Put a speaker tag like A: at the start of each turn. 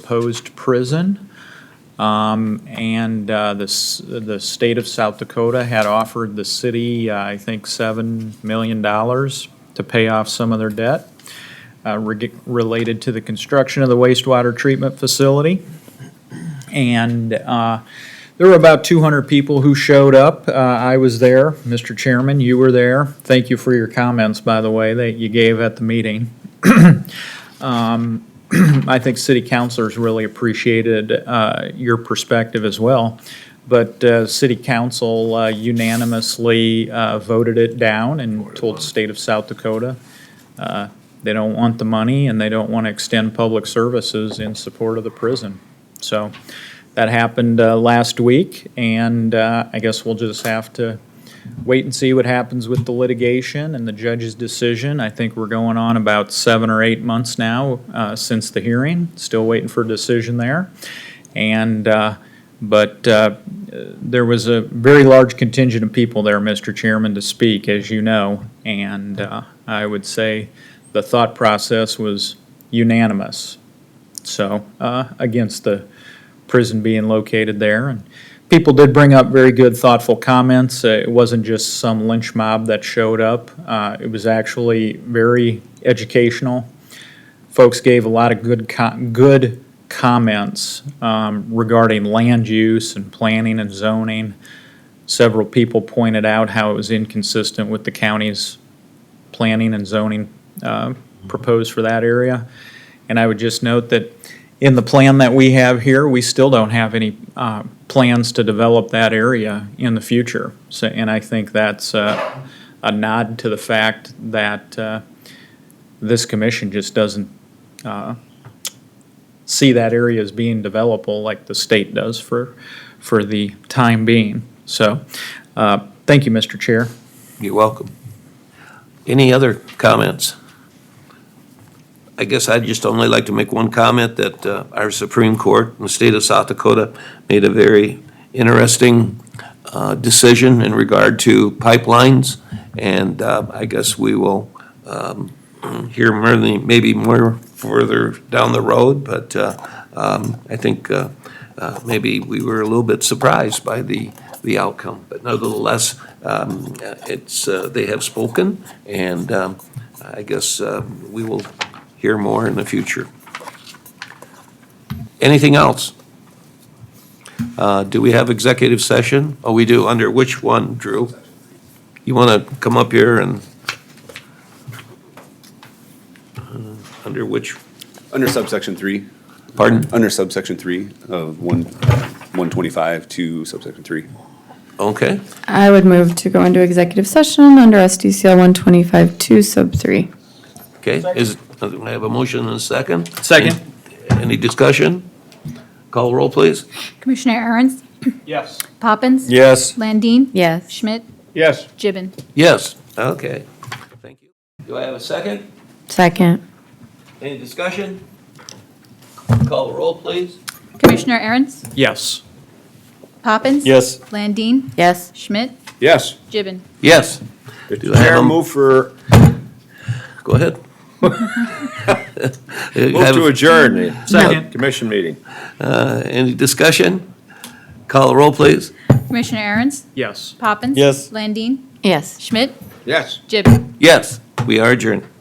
A: proposed prison. Um, And uh, the, s- the state of South Dakota had offered the city, uh, I think, $7 million to pay off some of their debt uh, reg- related to the construction of the wastewater treatment facility. And uh, there were about 200 people who showed up. Uh, I was there, Mr. Chairman, you were there. Thank you for your comments, by the way, that you gave at the meeting. Um, I think city councilors really appreciated uh, your perspective as well. But uh, city council uh, unanimously uh, voted it down and told the state of South Dakota uh, they don't want the money and they don't want to extend public services in support of the prison. So that happened uh, last week, and uh, I guess we'll just have to wait and see what happens with the litigation and the judge's decision. I think we're going on about seven or eight months now uh, since the hearing, still waiting for a decision there. And, uh, but uh, there was a very large contingent of people there, Mr. Chairman, to speak, as you know, and uh, I would say the thought process was unanimous. So, uh, against the prison being located there, and people did bring up very good, thoughtful comments. Uh, It wasn't just some lynch mob that showed up. Uh, It was actually very educational. Folks gave a lot of good, co- good comments um, regarding land use and planning and zoning. Several people pointed out how it was inconsistent with the county's planning and zoning uh, proposed for that area. And I would just note that in the plan that we have here, we still don't have any uh, plans to develop that area in the future. So, and I think that's uh, a nod to the fact that uh, this commission just doesn't uh, see that area as being developable like the state does for, for the time being. So, uh, thank you, Mr. Chair.
B: You're welcome. Any other comments? I guess I'd just only like to make one comment that uh, our Supreme Court in the state of South Dakota made a very interesting uh, decision in regard to pipelines, and uh, I guess we will um, hear more than- maybe more further down the road, but uh, um, I think uh, uh, maybe we were a little bit surprised by the, the outcome. But nevertheless, um, uh, it's, uh, they have spoken, and um, I guess uh, we will hear more in the future. Anything else? Uh, Do we have executive session? Oh, we do. Under which one, Drew? You want to come up here and, uh, under which,
C: Under subsection three,
B: pardon?
C: under subsection three of one, one twenty-five to subsection three.
B: Okay.
D: I would move to go into executive session under SDCL 125-2 sub 3.
B: Okay, is, I have a motion and a second.
A: Second.
B: Any discussion? Call roll, please.
E: Commissioner Aaron's?
A: Yes.
E: Poppins?
C: Yes.
E: Landine?
D: Yes.
E: Schmidt?
A: Yes.
E: Gibbon?
B: Yes, okay. Thank you. Do I have a second?
D: Second.
B: Any discussion? Call roll, please.
E: Commissioner Aaron's?
A: Yes.
E: Poppins? Yes. Landine?
D: Yes.
E: Schmidt?
C: Yes.
E: Gibbon?
B: Yes, Do I have
C: Chair,
B: a-
C: move for,
B: go ahead.
C: move to adjourn.
A: Second.
C: Commission meeting.
B: Uh, Any discussion? Call roll, please.
E: Commissioner Aaron's?
A: Yes.
E: Poppins? Yes. Landine?
D: Yes.
E: Schmidt?
C: Yes.
E: Gibbon?
B: Yes, we are adjourned.